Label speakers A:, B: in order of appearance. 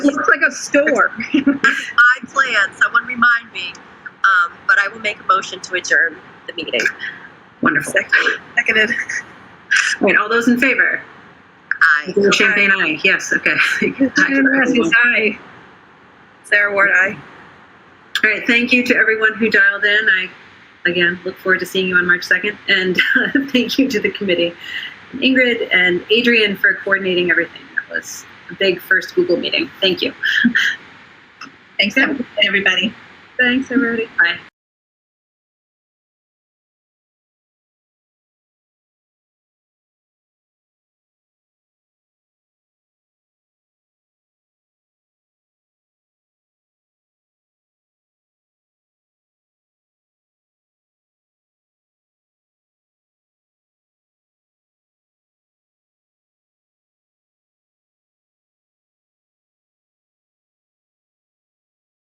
A: a store.
B: I plan. Someone remind me. Um, but I will make a motion to adjourn the meeting.
A: Wonderful.
C: Seconded.
A: Wait, all those in favor?
B: I.
A: Champagne, aye. Yes, okay.
C: Unanimous, aye. Sarah Ward, aye.
A: All right, thank you to everyone who dialed in. I, again, look forward to seeing you on March 2nd. And thank you to the committee, Ingrid and Adrian for coordinating everything. That was a big first Google meeting. Thank you.
C: Thanks, everybody.
A: Thanks, everybody. Bye.